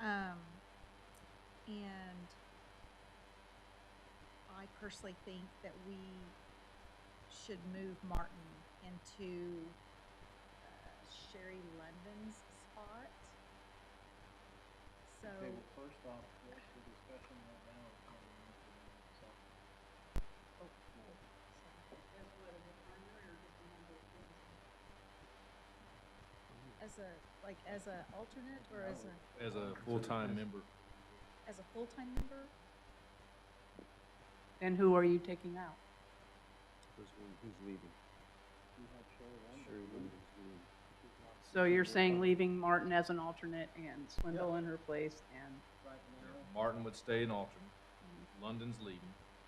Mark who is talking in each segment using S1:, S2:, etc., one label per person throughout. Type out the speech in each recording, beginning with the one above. S1: Um, personally think that we should move Martin into uh, Sherry London's spot. So,
S2: Okay, well, first off, what's the discussion right now is on the motion on the second floor.
S1: so as a like as a alternate or as
S2: No.
S1: a
S3: as a
S2: Consider
S3: full-time
S2: this.
S3: member.
S1: as a full time member?
S4: And who are you taking out?
S5: Who's, le- who's leaving?
S2: You have Sherry London.
S5: Sure, Linda's leaving.
S2: She's not
S4: So you're
S2: here
S4: saying leaving Martin as an alternate and Swindle in her place and,
S2: Right now,
S3: Martin would stay an alternate. London's leading.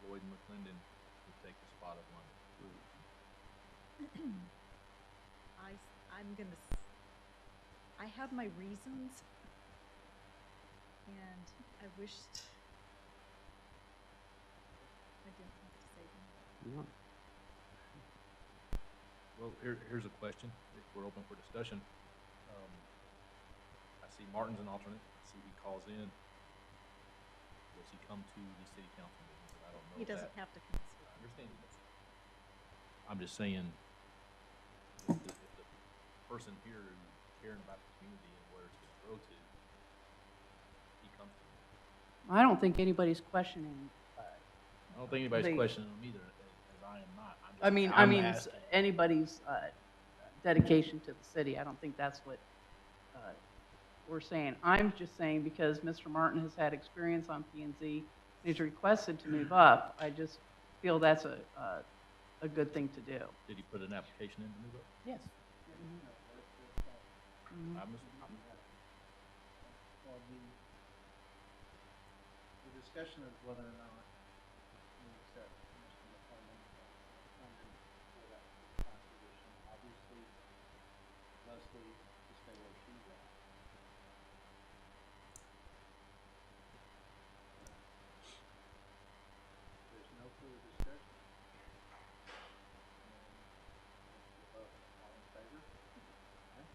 S3: Lloyd McClendon would take the spot of London.
S1: I s- I'm gonna. s- I have my reasons, and I wished I didn't have to say them.
S5: No,
S3: Well, here, here's a question, if we're open for discussion. Um, I see Martin's an alternate, I see he calls in. Does he come to the city council meetings? I don't know
S1: He
S3: that.
S1: doesn't have to consider.
S3: I understand he doesn't. I'm just saying, if the, if the person here who's caring about the community and where it's gonna grow to, he comes to me.
S4: I don't think anybody's questioning.
S3: I don't think anybody's
S4: They-
S3: questioning him either, as I am not. I'm
S4: I
S3: just-
S4: mean, I
S3: I'm
S4: mean,
S3: asking.
S4: anybody's uh, dedication to the city. I don't think that's what uh, we're saying. I'm just saying because Mr. Martin has had experience on P and Z, he's requested to move up. I just feel that's a, a- a good thing to do.
S3: Did he put an application in to move up?
S4: Yes. Mm-hmm.
S3: I missed it.
S2: well, the, the discussion is whether or not we accept Commissioner McClellan for that position. Obviously, Leslie is stay where she's at. There's no further discussion. And let's give up. All in favor? Aye.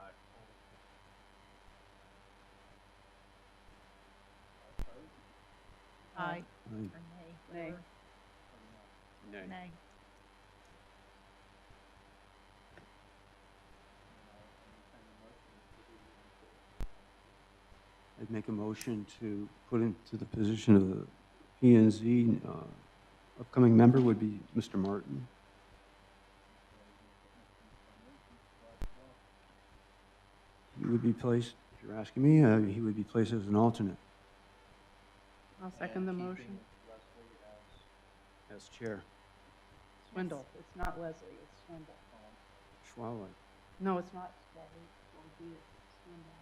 S3: Aye.
S2: All opposed?
S1: Aye. Or
S5: I-
S1: nay.
S4: Nay.
S1: whatever.
S2: Or no?
S5: no,
S1: Nay.
S2: And I'll entertain a motion to do the
S5: I'd make a motion to put into the position of the P and Z, uh, upcoming member would be Mr. Martin. He would be placed, if you're asking me, uh, he would be placed as an alternate.
S4: I'll second the motion.
S2: Leslie as,
S5: As chair.
S4: Swindle, it's not Leslie, it's Swindle.
S2: um,
S5: Schwallow.
S4: No, it's not Leslie, it'll be Swindle.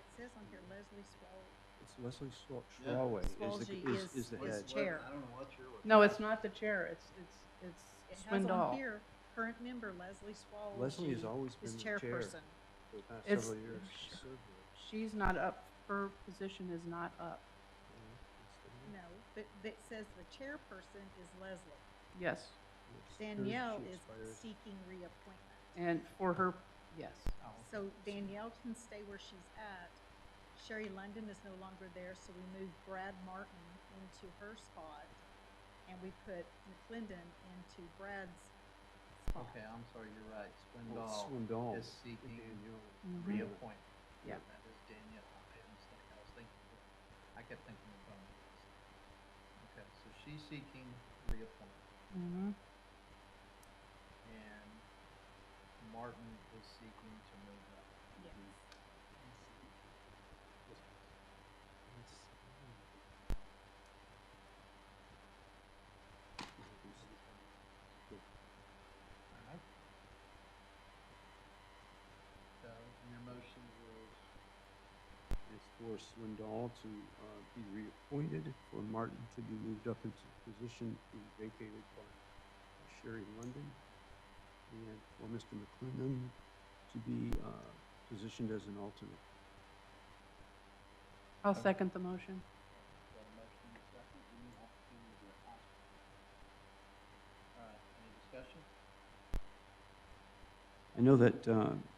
S1: It says on here Leslie Swall.
S5: It's Leslie Schwa-
S2: Yeah.
S5: Schwallow is the,
S1: Schwalge
S5: is, is
S1: is
S5: the
S1: Where's
S5: head.
S2: what-
S1: chair.
S2: I don't know what you're.
S4: No, it's not the chair, it's, it's, it's
S1: It has on
S4: Swindle.
S1: here current member Leslie Swall.
S5: Leslie has
S1: She
S5: always been
S1: is
S5: the chair for
S1: chairperson.
S3: Mm-hmm.
S5: the past
S4: It's-
S5: several years. She served there.
S4: She's not up, her position is not up.
S5: Yeah,
S1: No, but that says the chairperson is Leslie.
S4: Yes,
S5: it's the year.
S1: Danielle
S5: She
S1: is
S5: expires.
S1: seeking reappointment.
S4: and for her, yes.
S1: So Danielle can stay where she's at. Sherry London is no longer there, so we move Brad Martin into her spot. And we put McClendon into Brad's spot.
S2: Okay, I'm sorry, you're right.
S5: Well, it's
S2: Swindoll
S5: Swindoll.
S2: is seeking
S4: Mhm.
S2: reappointment.
S4: Yeah.
S2: That is Danielle. I didn't think, I was thinking, I kept thinking of Bonnie. Okay, so she's seeking reappointment.
S1: Mm-hmm.
S4: Mhm.
S2: and Martin is seeking to move up.
S1: Yes.
S2: Alright. So, and your motion was,
S5: It's for Swindoll to uh, be reappointed, for Martin to be moved up into the position being vacated by uh, Sherry London, and for Mr. McClendon to be uh, positioned as an alternate.
S4: I'll second the motion.
S2: got a motion in a second, you need opportunity to ask. Alright, any discussion?
S5: I know that uh,